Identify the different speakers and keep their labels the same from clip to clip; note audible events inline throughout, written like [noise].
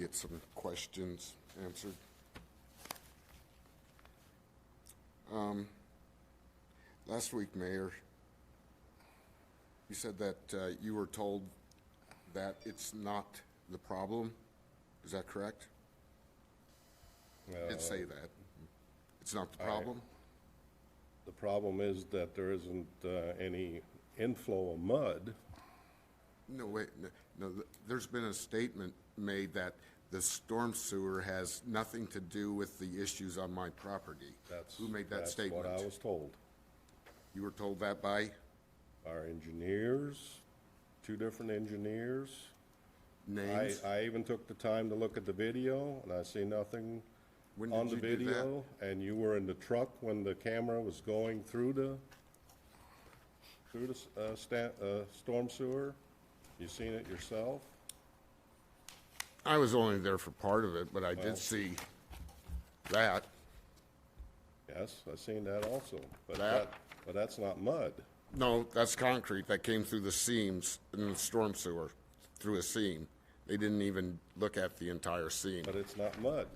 Speaker 1: get some questions answered. Um, Last week, Mayor, you said that uh, you were told that it's not the problem. Is that correct? You
Speaker 2: Uh,
Speaker 1: did say that. It's not the problem?
Speaker 2: The problem is that there isn't uh, any inflow of mud.
Speaker 1: No, wait, no, no, th- there's been a statement made that the storm sewer has nothing to do with the issues on my property.
Speaker 2: That's.
Speaker 1: Who made that
Speaker 2: That's what I
Speaker 1: statement?
Speaker 2: was told.
Speaker 1: You were told that by?
Speaker 2: Our engineers, two different engineers. I,
Speaker 1: Names?
Speaker 2: I even took the time to look at the video, and I see nothing
Speaker 1: When
Speaker 2: on the
Speaker 1: did you do that?
Speaker 2: video. And you were in the truck when the camera was going through the, through the s- uh, sta- uh, storm sewer. You seen it yourself?
Speaker 1: I was only there for part of it, but I did see that.
Speaker 2: Yes, I seen that also. But
Speaker 1: That-
Speaker 2: that, but that's not mud.
Speaker 1: No, that's concrete that came through the seams in the storm sewer, through a seam. They didn't even look at the entire seam.
Speaker 2: But it's not mud.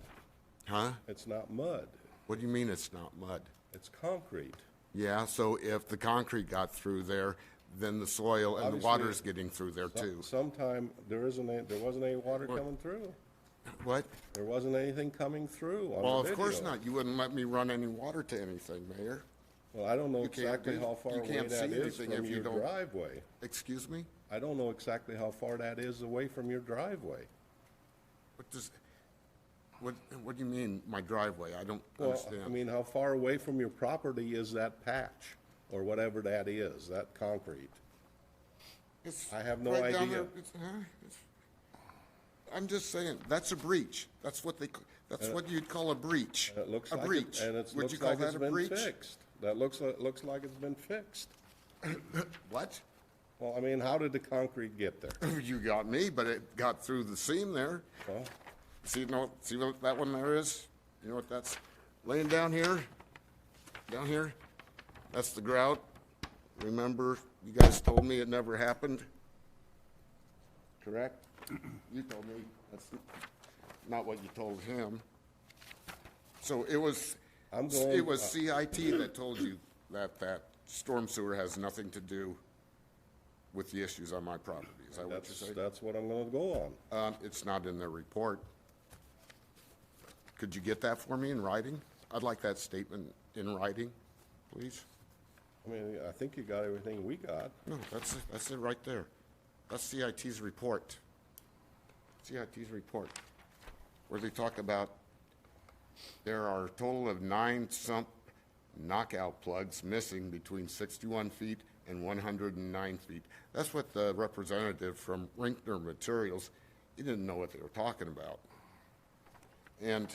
Speaker 1: Huh?
Speaker 2: It's not mud.
Speaker 1: What do you mean it's not mud?
Speaker 2: It's concrete.
Speaker 1: Yeah, so if the concrete got through there, then the soil and the
Speaker 2: Obviously-
Speaker 1: water's getting through there too.
Speaker 2: Sometime, there isn't, any- there wasn't any water coming through.
Speaker 1: What?
Speaker 2: There wasn't anything coming through on the
Speaker 1: Well, of course
Speaker 2: video.
Speaker 1: not. You wouldn't let me run any water to anything, Mayor.
Speaker 2: Well, I don't know
Speaker 1: You can't
Speaker 2: exactly
Speaker 1: do-
Speaker 2: how far
Speaker 1: you
Speaker 2: away
Speaker 1: can't
Speaker 2: that
Speaker 1: see
Speaker 2: is
Speaker 1: anything
Speaker 2: from
Speaker 1: if you
Speaker 2: your
Speaker 1: don't-
Speaker 2: driveway.
Speaker 1: Excuse me?
Speaker 2: I don't know exactly how far that is away from your driveway.
Speaker 1: What does, what, what do you mean, my driveway? I don't
Speaker 2: Well,
Speaker 1: understand.
Speaker 2: I mean, how far away from your property is that patch or whatever that is, that concrete?
Speaker 1: It's
Speaker 2: I have no
Speaker 1: right down
Speaker 2: idea.
Speaker 1: there. It's- huh? It's- I'm just saying, that's a breach. That's what they, c- that's what you'd call a breach.
Speaker 2: Uh, And it looks
Speaker 1: A
Speaker 2: like, it-
Speaker 1: breach.
Speaker 2: and it
Speaker 1: Would you
Speaker 2: looks
Speaker 1: call
Speaker 2: like
Speaker 1: that
Speaker 2: it's
Speaker 1: a
Speaker 2: been
Speaker 1: breach?
Speaker 2: fixed. That looks, li- looks like it's been fixed.
Speaker 1: What? [laughs]
Speaker 2: Well, I mean, how did the concrete get there?
Speaker 1: You got me, but it got through the seam there.
Speaker 2: Well,
Speaker 1: See, no, see what that one there is? You know what that's laying down here? Down here? That's the grout. Remember, you guys told me it never happened?
Speaker 2: [clears throat]
Speaker 1: Correct? You told me. That's not what you told him. So it was,
Speaker 2: I'm going- uh,
Speaker 1: it was CIT that told you that that storm sewer has nothing to do with the issues on my property. Is that what you're
Speaker 2: That's,
Speaker 1: saying?
Speaker 2: that's what I'm gonna go on.
Speaker 1: Um, it's not in their report. Could you get that for me in writing? I'd like that statement in writing, please.
Speaker 2: I mean, I think you got everything we got.
Speaker 1: No, that's, that's it right there. That's CIT's report. CIT's report, where they talk about there are a total of nine sump knockout plugs missing between 61 feet and 109 feet. That's what the representative from Rinkner Materials, he didn't know what they were talking about. And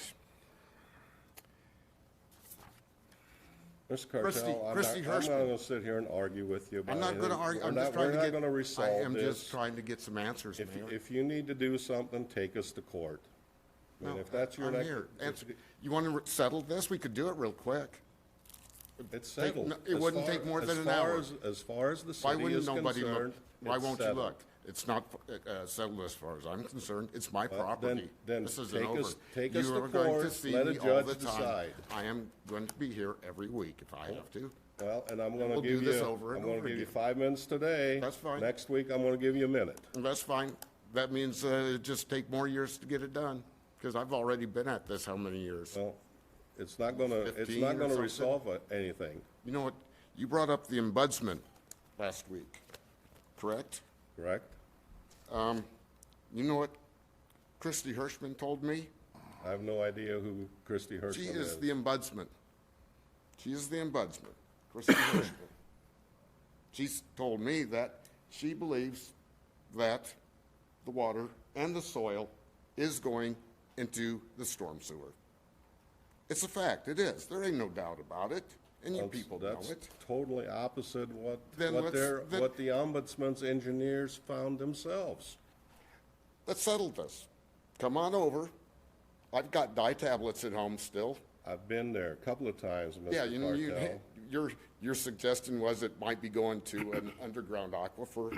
Speaker 1: Christie-
Speaker 2: Mr. Cartel, I'm not,
Speaker 1: Christie
Speaker 2: I'm not
Speaker 1: Hirschman.
Speaker 2: gonna sit here and argue with you about
Speaker 1: I'm
Speaker 2: anything.
Speaker 1: not going to argue,
Speaker 2: Uh, We're
Speaker 1: I'm
Speaker 2: not-
Speaker 1: just trying to get...
Speaker 2: We're not gonna
Speaker 1: I am
Speaker 2: resolve
Speaker 1: just
Speaker 2: this.
Speaker 1: trying to get some answers,
Speaker 2: If,
Speaker 1: Mayor.
Speaker 2: if you need to do something, take us to court. I mean,
Speaker 1: No,
Speaker 2: if that's your
Speaker 1: I'm
Speaker 2: next.
Speaker 1: here. Answer- You want to settle this? We could do it real quick.
Speaker 2: It's
Speaker 1: Take-
Speaker 2: settled.
Speaker 1: no, it
Speaker 2: As
Speaker 1: wouldn't
Speaker 2: far-
Speaker 1: take more
Speaker 2: as
Speaker 1: than an
Speaker 2: far
Speaker 1: hour.
Speaker 2: as- As far as the
Speaker 1: Why
Speaker 2: city
Speaker 1: wouldn't
Speaker 2: is
Speaker 1: nobody
Speaker 2: concerned,
Speaker 1: look? Why
Speaker 2: it's
Speaker 1: won't you
Speaker 2: settled.
Speaker 1: look? It's not uh, settled as far as I'm concerned. It's my
Speaker 2: Uh, then-
Speaker 1: property.
Speaker 2: then
Speaker 1: This isn't
Speaker 2: take us-
Speaker 1: over.
Speaker 2: take
Speaker 1: You
Speaker 2: us to
Speaker 1: are going
Speaker 2: court,
Speaker 1: see
Speaker 2: let a
Speaker 1: me all
Speaker 2: judge
Speaker 1: the time.
Speaker 2: decide.
Speaker 1: I am going to be here every week if I have to.
Speaker 2: Well, and I'm gonna
Speaker 1: we'll do
Speaker 2: give
Speaker 1: this
Speaker 2: you,
Speaker 1: over
Speaker 2: I'm
Speaker 1: and
Speaker 2: gonna
Speaker 1: over
Speaker 2: give you
Speaker 1: again.
Speaker 2: five minutes today.
Speaker 1: That's fine.
Speaker 2: Next week, I'm gonna give you a minute.
Speaker 1: And That's fine. That means uh, it just take more years to get it done because I've already been at this how many years?
Speaker 2: Well, it's not gonna, it's
Speaker 1: 15
Speaker 2: not
Speaker 1: or
Speaker 2: gonna
Speaker 1: something?
Speaker 2: resolve uh, anything,
Speaker 1: You know what? You brought up the ombudsman last week, correct?
Speaker 2: correct?
Speaker 1: Um, You know what Christy Hirschman told me?
Speaker 2: I have no idea who Christy
Speaker 1: She
Speaker 2: Hirschman
Speaker 1: is
Speaker 2: is.
Speaker 1: the ombudsman. She is the ombudsman,
Speaker 2: [coughs]
Speaker 1: Christy Hirschman. She's told me that she believes that the water and the soil is going into the storm sewer. It's a fact, it is. There ain't no doubt about it, and you
Speaker 2: That's-
Speaker 1: people know
Speaker 2: That's
Speaker 1: it.
Speaker 2: totally opposite what,
Speaker 1: Then
Speaker 2: what
Speaker 1: let's-
Speaker 2: their,
Speaker 1: then-
Speaker 2: what the ombudsman's engineers found themselves.
Speaker 1: Let's settle this. Come on over. I've got dye tablets at home still.
Speaker 2: I've been there a couple of times,
Speaker 1: Yeah, you
Speaker 2: Mr.
Speaker 1: know, you, [laughs]
Speaker 2: Cartel.
Speaker 1: [laughs] your, your suggestion was it might be going to an underground aquifer.